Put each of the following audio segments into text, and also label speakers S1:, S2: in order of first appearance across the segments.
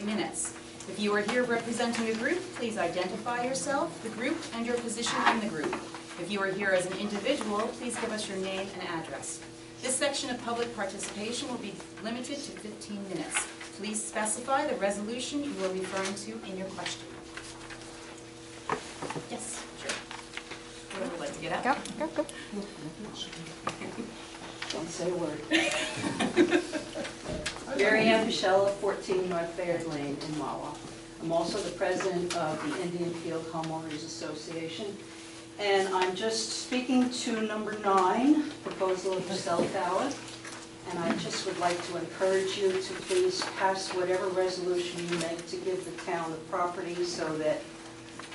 S1: minutes. If you are here representing a group, please identify yourself, the group, and your position in the group. If you are here as an individual, please give us your name and address. This section of public participation will be limited to 15 minutes. Please specify the resolution you are referring to in your question. Yes, sure. Would everyone like to get up?
S2: Go, go, go.
S3: Don't say a word. Mary Ann Pichella, 14 North Baird Lane in Mawa. I'm also the president of the Indian Field Homeowners Association. And I'm just speaking to number nine, proposal of the cell tower. And I just would like to encourage you to please pass whatever resolution you make to give the town the property so that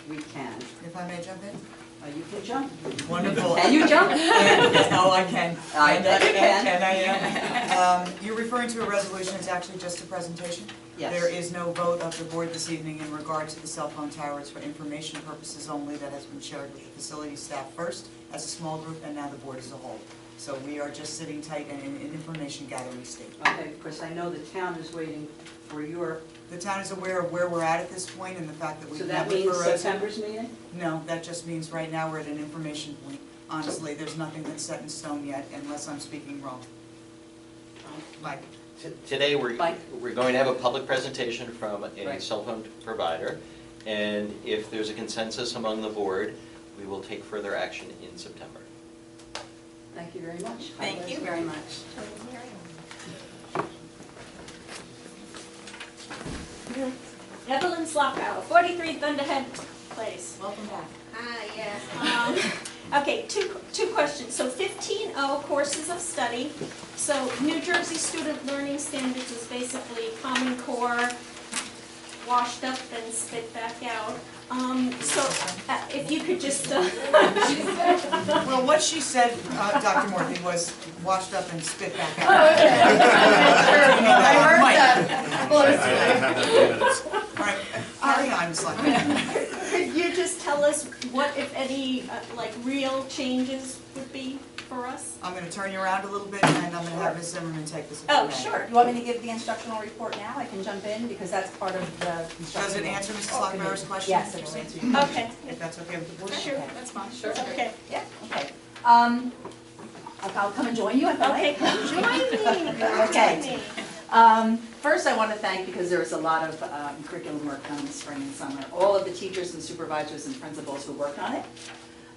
S3: we can.
S4: If I may jump in?
S3: Uh, You can jump.
S4: Wonderful.
S3: Can you jump?
S4: Oh, I can.
S3: I bet you can.
S4: Can I, um, um, you're referring to a resolution, it's actually just a presentation?
S3: Yes.
S4: There is no vote of the board this evening in regard to the cell phone tower, it's for information purposes only, that has been shared with the facility staff first as a small group, and now the board as a whole. So we are just sitting tight and in an information gathering state.
S3: Okay, because I know the town is waiting for your,
S4: The town is aware of where we're at at this point and the fact that we've
S3: so
S4: met
S3: that
S4: with
S3: means
S4: Verizon.
S3: September's meeting?
S4: No, that just means right now we're at an information point. Honestly, there's nothing that's set in stone yet unless I'm speaking wrong. Mike?
S5: T- Today, we're,
S3: Mike?
S5: we're going to have a public presentation from a
S3: Right.
S5: cell phone provider, and if there's a consensus among the board, we will take further action in September.
S3: Thank you very much.
S1: Thank you very much.
S6: Evelyn Slocco, 43 Thunderhead Place.
S1: Welcome back.
S6: Ah, yes. Um, Okay, two, two questions. So 15O courses of study. So New Jersey Student Learning Standards is basically Common Core washed up and spit back out. Um, So uh, if you could just, uh,
S4: Well, what she said, uh, Dr. Morphy, was washed up and spit back
S7: Oh,
S4: out.
S7: okay. I'm not sure. I heard that.
S4: Mike.
S7: Well,
S8: I I
S7: it's-
S8: didn't have that in minutes.
S4: All right, Ari, I'm selecting.
S6: could you just tell us what, if any, uh, like real changes would be for us?
S4: I'm gonna turn you around a little bit and I'm gonna have Ms. Zimmerman take this. if you
S6: Oh,
S4: may.
S6: sure.
S7: You want me to give the instructional report now? I can jump in because that's part of the
S4: Does
S7: instructional.
S4: it answer Mrs. Lockmeyer's question?
S7: Yes, it will answer your
S6: Okay,
S4: If that's okay with the board?
S1: Sure, that's fine. Sure.
S6: okay.
S7: Yeah, okay. Um, I'll- I'll come and join you if I
S6: Okay,
S7: like.
S6: come join me.
S7: Okay.
S6: Join me.
S7: Um, First, I want to thank, because there was a lot of um, curriculum work done this spring and summer, all of the teachers and supervisors and principals who worked on it.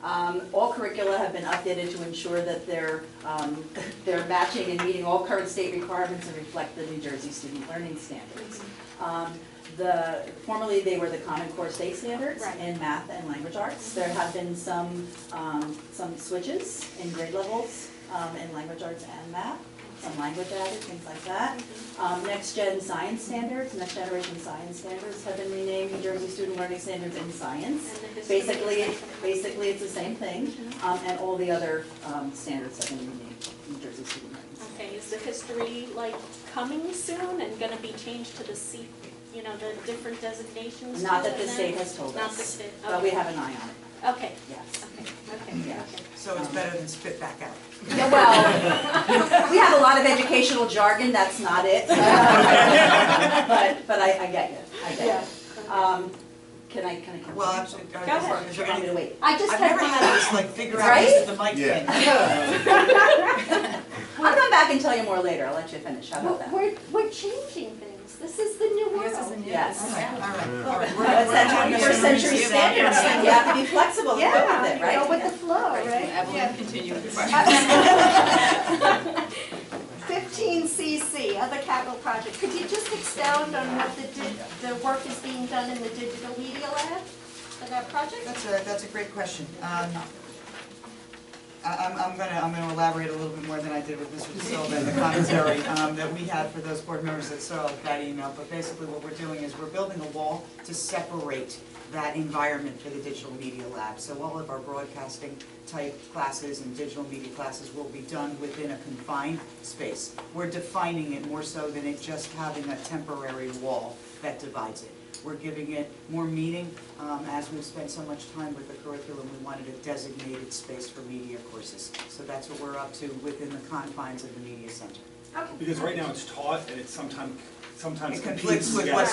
S7: Um, All curricula have been updated to ensure that they're, um, they're matching and meeting all current state requirements and reflect the New Jersey student learning standards. Um, The, formerly, they were the Common Core State Standards
S6: Right.
S7: in math and language arts. There have been some, um, some switches in grade levels um, in language arts and math, some language added, things like that. Um, Next Gen Science Standards, Next Generation Science Standards have been renamed New Jersey Student Learning Standards in Science.
S6: And the history of
S7: Basically, it-
S6: science.
S7: basically, it's the same thing, um, and all the other um, standards have been renamed New Jersey Student Learning Standards.
S6: Okay, is the history like coming soon and gonna be changed to the C, you know, the different designations?
S7: Not
S6: to
S7: that
S6: it
S7: the
S6: then?
S7: state has told
S6: Not the
S7: us,
S6: state,
S7: but we
S6: okay.
S7: have an eye on it,
S6: Okay,
S7: yes.
S6: okay, okay,
S7: Yeah.
S6: okay.
S4: So it's better than spit back out.
S7: Yeah, well, we have a lot of educational jargon, that's not it. But, but I, I get you, I get you. Um, Can I, can I? continue?
S4: Well, actually,
S7: Or
S4: uh,
S6: Go ahead.
S4: is
S7: do you
S4: there
S7: want me
S4: any-
S7: to wait?
S6: I just
S4: I've
S6: had
S4: never had
S6: one,
S4: this like figure out this is the mic
S8: Yeah.
S4: thing.
S7: I'll come back and tell you more later, I'll let you finish, how about that?
S6: We're- we're, we're changing things, this is the new world.
S1: This is a new.
S7: Yes.
S4: All right, all right, all right. We're-
S7: That's
S4: we're
S7: that
S4: doing this
S7: 21st century
S4: in a
S7: standards,
S4: second.
S7: you have to be flexible and go with it,
S6: Yeah, go
S7: right?
S6: with the flow, right?
S1: Evelyn, continue with the question.
S6: 15CC, other capital project, could you just expound on what the, di- the work is being done in the digital media lab for that project?
S4: That's a, that's a great question. Um, I- I'm, I'm gonna, I'm gonna elaborate a little bit more than I did with Mr. Silva in the commentary um, that we had for those board members that saw that email. But basically what we're doing is we're building a wall to separate that environment for the digital media lab. So all of our broadcasting type classes and digital media classes will be done within a confined space. We're defining it more so than it just having a temporary wall that divides it. We're giving it more meaning. Um, As we've spent so much time with the curriculum, we wanted a designated space for media courses. So that's what we're up to within the confines of the media center.
S6: Okay.
S9: Because right now it's taught and it's sometimes, sometimes
S4: It conflicts
S9: competes
S4: with
S9: together.
S4: what's